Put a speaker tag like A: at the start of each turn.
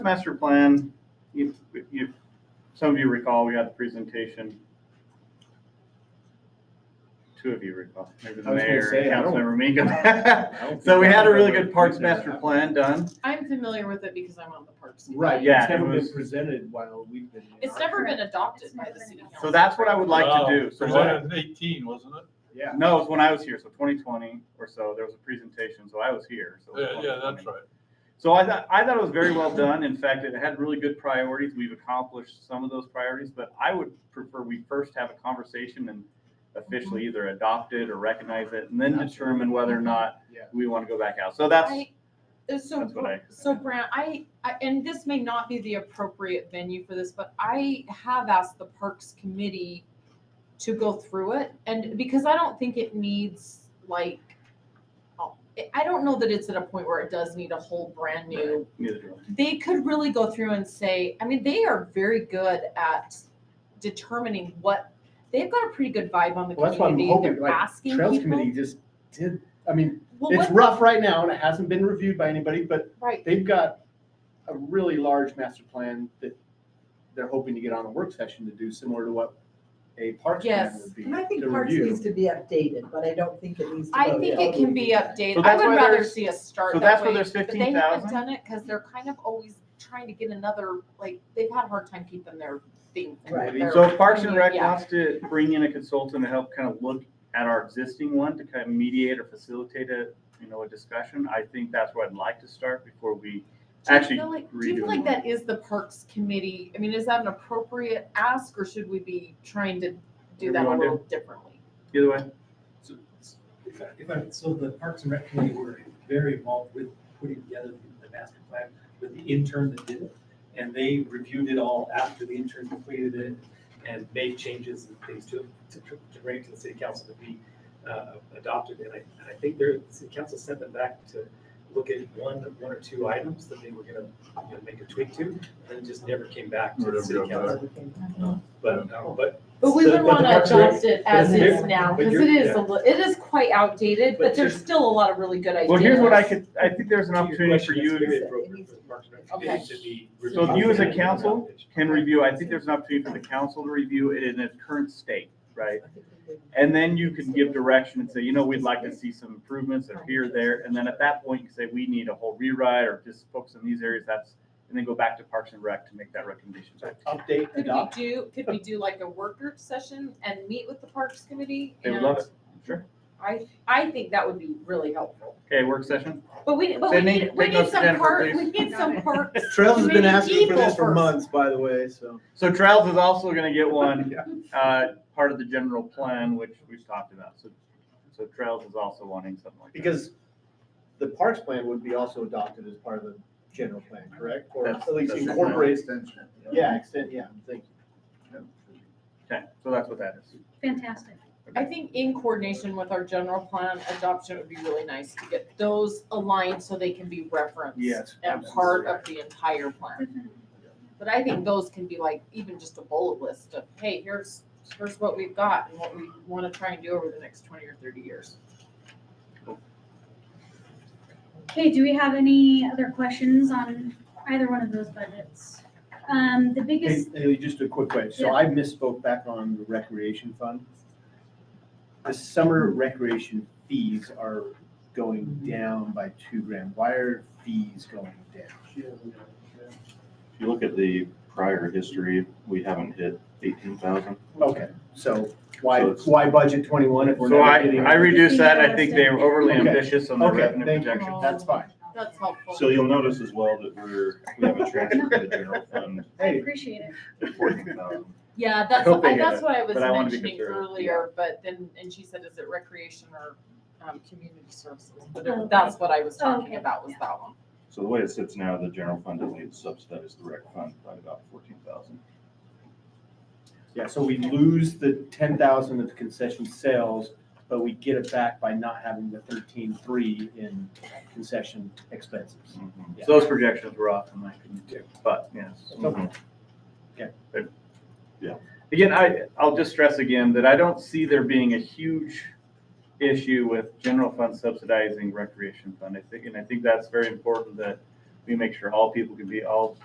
A: The master plan, if, if, some of you recall, we had the presentation. Two of you recall, maybe the
B: I was gonna
A: mayor,
B: say, I don't-
A: councilmember Minka. So we had a really good parks master plan done.
C: I'm familiar with it because I'm on the parks. Committee.
B: Right,
A: Yeah,
B: it's never
A: it
B: been
A: was-
B: presented while we've been. in
C: It's
B: our-
C: never been adopted by the city council.
A: So that's what I would like to do. So what-
D: Presented in eighteen, wasn't it?
B: Yeah.
A: No, it was when I was here, so twenty twenty or so, there was a presentation, so I was here. so it was
D: Yeah, yeah, that's
A: 2020.
D: right.
A: So I thought, I thought it was very well done. In fact, it had really good priorities. We've accomplished some of those priorities, but I would prefer we first have a conversation and officially either adopt it or recognize it and then determine whether or not
B: Yeah.
A: we want to go back out. So that's,
C: I- uh, So,
A: That's what I-
C: so Brant, I, I, and this may not be the appropriate venue for this, but I have asked the Parks Committee to go through it, and because I don't think it needs, like, oh, I- I don't know that it's at a point where it does need a whole brand new.
A: neither do
C: They could really go through and say, I mean, they are very good at determining what, they've got a pretty good vibe on the
B: Well, that's what I'm
C: community,
B: hoping,
C: they're
B: like,
C: asking
B: Trails
C: people.
B: committee just did, I mean,
C: Well,
B: it's
C: what-
B: rough right now and it hasn't been reviewed by anybody, but
C: Right,
B: they've got a really large master plan that they're hoping to get on a work session to do similar to what a parks plan
C: Yes.
B: would be
E: And I think
B: to
E: parks
B: review.
E: needs to be updated, but I don't think it needs to.
C: I
E: go
C: think
E: all
C: it
E: the
C: can
E: way
C: be
E: to the end.
C: updated.
A: So
C: I
A: that's
C: would
A: why
C: rather
A: there's-
C: see us start
A: So
C: that
A: that's where
C: way.
A: there's
C: But they
A: fifteen
C: haven't
A: thousand.
C: done it because they're kind of always trying to get another, like, they've had a hard time keeping their thing. and
E: Right.
C: their-
A: So if Parks and Rec
C: Yeah.
A: wants to bring in a consultant to help kind of look at our existing one to kind of mediate or facilitate a, you know, a discussion, I think that's where I'd like to start before we
C: Do you
A: actually
C: feel like- Do you feel
A: redoing
C: like
A: one.
C: that is the Parks Committee? I mean, is that an appropriate ask or should we be trying to
A: Whatever
C: do
A: you
C: that a
A: wanna do.
C: little differently?
A: Either way,
F: So, if I, if I, so the Parks and Rec committee were very involved with putting together the master plan with the intern that did it. And they reviewed it all after the intern completed it and made changes and things to, to, to bring it to the city council to be, uh, adopted. And I, and I think their, the city council sent them back to look at one, one or two items that they were gonna, you know, make a tweak to. And then it just never came back to the
D: Never
F: city
D: got
F: council. But, uh, but
C: But we
F: So-
C: would
F: but
C: want
F: the
C: to
F: Parks and Rec-
C: adopt it as
F: but
C: is
F: you're-
C: now
F: but
C: because
F: you're-
C: it is,
F: yeah.
C: a li- it is quite outdated,
F: But
C: but there's
F: just-
C: still a lot of really good ideas.
A: well, here's what I could, I think there's an
F: To your
A: opportunity for
F: question,
A: you
F: it's
A: to
F: very appropriate for the Parks and Rec
C: Okay.
F: Committee to be
A: So if you as a
F: reviewing
A: council
F: it.
A: can review, I think there's an opportunity for the council to review it in its current state, right? And then you can give direction and say, you know, we'd like to see some improvements or here, there, and then at that point, you say, we need a whole rewrite or just focus on these areas, that's, and then go back to Parks and Rec to make that recommendation. back.
B: Update,
C: Could we
B: adopt,
C: do, could we do like a work group session and meet with the Parks Committee?
A: They would
C: And
A: love it, sure.
C: I, I think that would be really helpful.
A: Okay, work session.
C: But we, but we
A: Sydney,
C: need, we
A: take notes
C: need
A: to
C: some
A: Jennifer,
C: park, we
A: please.
C: need some parks.
B: Trails has been
C: Committee
B: asking for this
C: people
B: for
C: first.
B: months, by the way, so.
A: So Trails is also gonna get one,
B: Yeah.
A: uh, part of the general plan, which we've talked about, so, so Trails is also wanting something like that.
B: Because the parks plan would be also adopted as part of the general plan, correct? Or
A: That's-
B: at least
A: that's-
B: incorporates, yeah, extend, yeah, thank
A: Okay, so that's what that is.
G: Fantastic.
C: I think in coordination with our general plan adoption, it would be really nice to get those aligned so they can be referenced.
B: Yes,
C: And part of the entire plan. But I think those can be like even just a bullet list of, hey, here's, here's what we've got and what we want to try and do over the next twenty or thirty years.
G: Okay, do we have any other questions on either one of those budgets? Um, the
B: you. Hey,
G: biggest,
B: Haley, just a quick question. So
G: Yeah.
B: I misspoke back on the recreation fund. The summer recreation fees are going down by two grand. Why are fees going down?
H: If you look at the prior history, we haven't hit eighteen thousand.
B: Okay, so why,
H: So it's-
B: why budget twenty-one if we're
A: So I,
B: not getting?
A: I reduced that, I think they were overly
B: Okay.
A: ambitious on the
B: Okay,
A: revenue
B: thank you.
A: projection.
B: That's fine.
C: That's helpful.
H: So you'll notice as well that we're, we have a transfer to the general fund
G: I
B: Hey,
G: appreciate it.
H: of fourteen thousand.
C: Yeah, that's,
A: hope they
C: I-
A: get
C: that's
A: it,
C: what I was
A: but I wanna be
C: mentioning
A: conservative,
C: earlier, but then, and she said, is it recreation or, um, community services? But
G: Oh.
C: That's what I was
G: Oh,
C: talking
G: okay.
C: about, was that one.
H: So the way it sits now, the general fund only subsidizes the rec fund by about fourteen thousand.
B: Yeah, so we lose the ten thousand of concession sales, but we get it back by not having the thirteen-three in concession expenses.
H: Mm-hmm.
A: So Those projections were off in my opinion too, but yes. Again, I, I'll just stress again that I don't see there being a huge issue with general fund subsidizing recreation fund. I think, and I think that's very important that we make sure all people can be, all